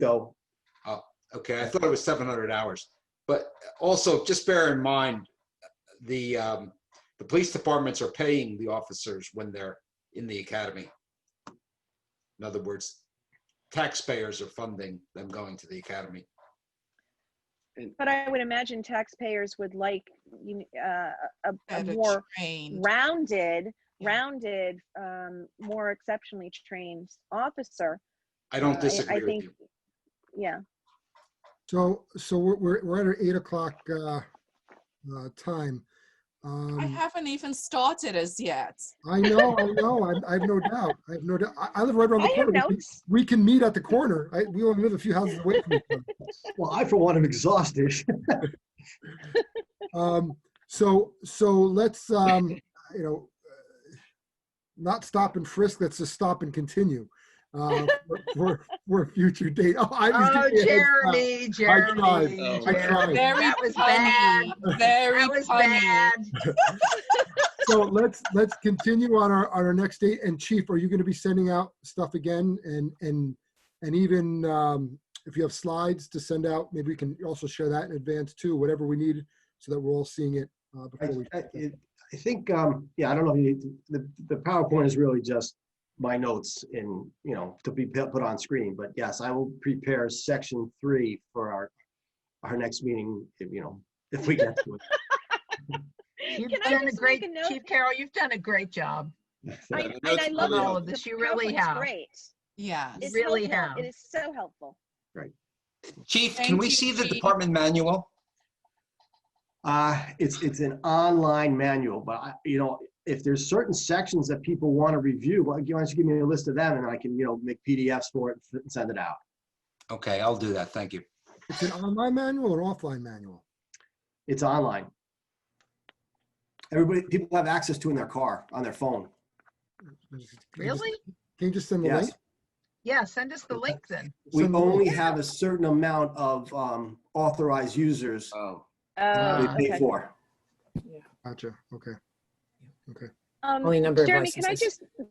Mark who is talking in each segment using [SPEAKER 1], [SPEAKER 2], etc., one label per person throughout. [SPEAKER 1] go.
[SPEAKER 2] Oh, Okay, I thought it was seven hundred hours. But also, just bear in mind, the, um, the police departments are paying the officers when they're in the academy. In other words, taxpayers are funding them going to the academy.
[SPEAKER 3] But I would imagine taxpayers would like, you kn- uh, a, a
[SPEAKER 4] better
[SPEAKER 3] more
[SPEAKER 4] trained.
[SPEAKER 3] rounded,
[SPEAKER 4] Yeah.
[SPEAKER 3] rounded, um, more exceptionally trained officer.
[SPEAKER 2] I
[SPEAKER 3] Uh,
[SPEAKER 2] don't disagree with
[SPEAKER 3] think-
[SPEAKER 2] you.
[SPEAKER 3] Yeah,
[SPEAKER 5] So, so we're, we're, we're at our eight o'clock, uh, uh, time.
[SPEAKER 4] I
[SPEAKER 5] Um,
[SPEAKER 4] haven't even started as yet.
[SPEAKER 5] I know, I know, I, I have no doubt, I have no doubt. I, I live right around
[SPEAKER 3] I
[SPEAKER 5] the
[SPEAKER 3] have
[SPEAKER 5] corner. We can-
[SPEAKER 3] notes.
[SPEAKER 5] We can meet at the corner. I, we only live a few houses away from each other.
[SPEAKER 1] Well, I for one am exhausted.
[SPEAKER 5] Um, so, so let's, um, you know, uh, not stop and frisk, let's just stop and continue. Uh, for- for, for a future date. Oh, I was
[SPEAKER 6] Oh,
[SPEAKER 5] giving you a heads up.
[SPEAKER 6] Jeremy, Jeremy.
[SPEAKER 5] tried.
[SPEAKER 6] Jeremy.
[SPEAKER 5] I tried.
[SPEAKER 4] Very
[SPEAKER 6] That was
[SPEAKER 4] funny. Very
[SPEAKER 6] That was
[SPEAKER 4] funny.
[SPEAKER 6] bad.
[SPEAKER 5] So let's, let's continue on our, on our next date. And Chief, are you going to be sending out stuff again? And, and, and even um, if you have slides to send out, maybe we can also share that in advance too, whatever we need, so that we're all seeing it uh,
[SPEAKER 1] I,
[SPEAKER 5] before we.
[SPEAKER 1] I- it- I think, um, yeah, I don't know, if you- the, the PowerPoint is really just my notes in, you know, to be put put on screen, but yes, I will prepare section three for our, our next meeting, if, you know, if we get to
[SPEAKER 6] You've
[SPEAKER 3] Can I
[SPEAKER 6] done a
[SPEAKER 3] just make
[SPEAKER 6] great,
[SPEAKER 3] a note?
[SPEAKER 6] Chief Carroll, you've done a great job.
[SPEAKER 3] I,
[SPEAKER 1] it.
[SPEAKER 3] and
[SPEAKER 2] Notes
[SPEAKER 3] I love
[SPEAKER 2] on
[SPEAKER 3] all
[SPEAKER 2] all
[SPEAKER 6] of this, you really have.
[SPEAKER 3] Great.
[SPEAKER 4] Yes.
[SPEAKER 3] It's
[SPEAKER 6] Really
[SPEAKER 3] helpful. It
[SPEAKER 6] have.
[SPEAKER 3] is so helpful.
[SPEAKER 2] Chief, can
[SPEAKER 4] Thank
[SPEAKER 2] we
[SPEAKER 4] you,
[SPEAKER 2] see the
[SPEAKER 4] Chief.
[SPEAKER 2] department manual?
[SPEAKER 1] Uh, it's, it's an online manual, but I, you know, if there's certain sections that people want to review, why don't you give me a list of them and I can, you know, make PDFs for it and send it out.
[SPEAKER 2] Okay, I'll do that. Thank you.
[SPEAKER 5] It's an online manual or an offline manual?
[SPEAKER 1] It's online. Everybody, people have access to in their car, on their phone.
[SPEAKER 5] Can you just-
[SPEAKER 6] Really?
[SPEAKER 5] Can you just send the
[SPEAKER 1] Yes.
[SPEAKER 5] link?
[SPEAKER 6] Yeah, send us the link then.
[SPEAKER 1] We
[SPEAKER 5] Send the link.
[SPEAKER 1] only have a certain amount of um, authorized users
[SPEAKER 2] Oh.
[SPEAKER 3] Oh,
[SPEAKER 1] we
[SPEAKER 6] Ah,
[SPEAKER 1] pay
[SPEAKER 3] okay.
[SPEAKER 1] for.
[SPEAKER 5] Gotcha, okay.
[SPEAKER 3] Um,
[SPEAKER 7] Only number of
[SPEAKER 3] Jeremy, can I
[SPEAKER 7] licenses.
[SPEAKER 3] just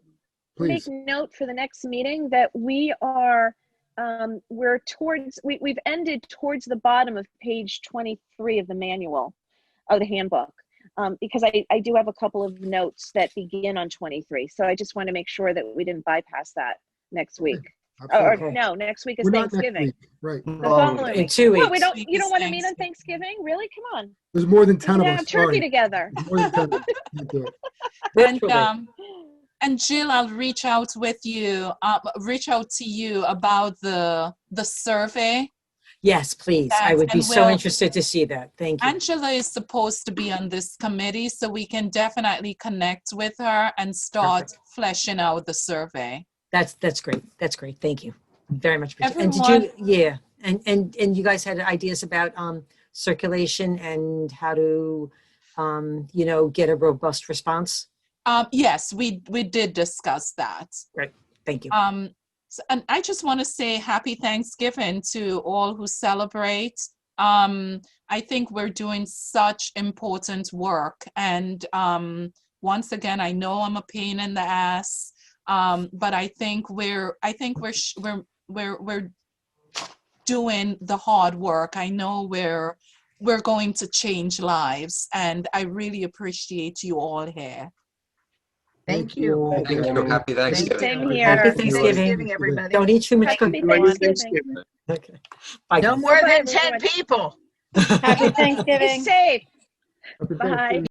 [SPEAKER 5] Please,
[SPEAKER 3] make note for the next meeting that we are, um, we're towards, we, we've ended towards the bottom of page 23 of the manual, of the handbook. Um, because I, I do have a couple of notes that begin on 23. So I just want to make sure that we didn't bypass that next week. Or,
[SPEAKER 5] absolutely.
[SPEAKER 3] or no, next week is
[SPEAKER 5] We're not next
[SPEAKER 3] Thanksgiving.
[SPEAKER 5] week, Right,
[SPEAKER 3] The
[SPEAKER 1] Oh,
[SPEAKER 3] following
[SPEAKER 7] In
[SPEAKER 3] week.
[SPEAKER 7] two
[SPEAKER 3] What, we
[SPEAKER 7] weeks.
[SPEAKER 3] don't,
[SPEAKER 4] Week
[SPEAKER 3] you don't
[SPEAKER 4] is
[SPEAKER 3] want to meet on Thanksgiving? Really? Come on.
[SPEAKER 5] there's more than
[SPEAKER 3] We
[SPEAKER 5] 10
[SPEAKER 3] can
[SPEAKER 5] of
[SPEAKER 3] have
[SPEAKER 5] us,
[SPEAKER 3] turkey
[SPEAKER 5] sorry.
[SPEAKER 3] together.
[SPEAKER 5] There's more than 10 of us. Can't do it.
[SPEAKER 4] And,
[SPEAKER 7] Virtually.
[SPEAKER 4] um, and Jill, I'll reach out with you, uh, reach out to you about the, the survey.
[SPEAKER 7] Yes, please. I
[SPEAKER 4] Yes,
[SPEAKER 7] would be
[SPEAKER 4] and
[SPEAKER 7] so
[SPEAKER 4] we'll-
[SPEAKER 7] interested to see that. Thank you.
[SPEAKER 4] Angela is supposed to be on this committee, so we can definitely connect with her and start fleshing out the survey.
[SPEAKER 7] That's, that's great. That's great. Thank you. Very much. appreciate- And did you, yeah. And, and, and you guys had ideas about, um, circulation and how to, um, you know, get a robust response?
[SPEAKER 4] Um, yes, we, we did discuss that.
[SPEAKER 7] Thank you.
[SPEAKER 4] Um, s- and I just want to say happy Thanksgiving to all who celebrate. Um, I think we're doing such important work. And um, once again, I know I'm a pain in the ass, um, but I think we're, I think we're, sh- we're, we're, we're doing the hard work. I know we're, we're going to change lives. And I really appreciate you all here.
[SPEAKER 6] Thank you.
[SPEAKER 2] Thank you.
[SPEAKER 1] you.
[SPEAKER 2] Happy Thanksgiving.
[SPEAKER 3] Same
[SPEAKER 7] Happy
[SPEAKER 3] here.
[SPEAKER 7] Thanksgiving.
[SPEAKER 6] everybody.
[SPEAKER 7] Don't eat too much
[SPEAKER 3] Happy
[SPEAKER 7] cookie.
[SPEAKER 3] Thanksgiving.
[SPEAKER 7] Okay. Bye.
[SPEAKER 6] No
[SPEAKER 7] guys.
[SPEAKER 6] more
[SPEAKER 3] Bye,
[SPEAKER 6] than
[SPEAKER 3] everyone.
[SPEAKER 6] 10 people.
[SPEAKER 3] Happy Thanksgiving. Be safe.
[SPEAKER 5] Happy
[SPEAKER 3] Bye.
[SPEAKER 5] Thanksgiving.